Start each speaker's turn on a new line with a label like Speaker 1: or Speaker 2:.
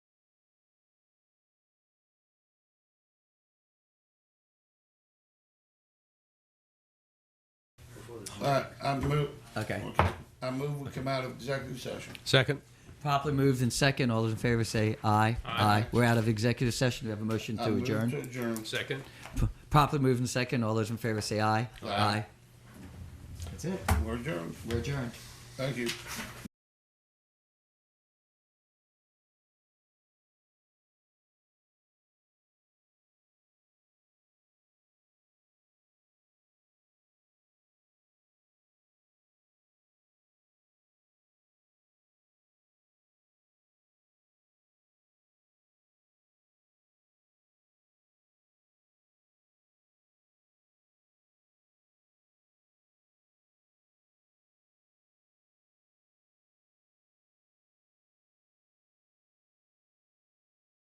Speaker 1: All right, I move.
Speaker 2: Okay.
Speaker 1: I move we come out of executive session.
Speaker 3: Second.
Speaker 2: Properly moved and second. All those in favor say aye. Aye. We're out of executive session. Do we have a motion
Speaker 1: I
Speaker 2: to
Speaker 1: move
Speaker 2: adjourn?
Speaker 1: To adjourn.
Speaker 3: Second.
Speaker 2: P- Properly moved and second. All those in favor say aye.
Speaker 1: Aye.
Speaker 2: That's it.
Speaker 1: We're adjourned.
Speaker 2: We're adjourned.
Speaker 1: Thank you.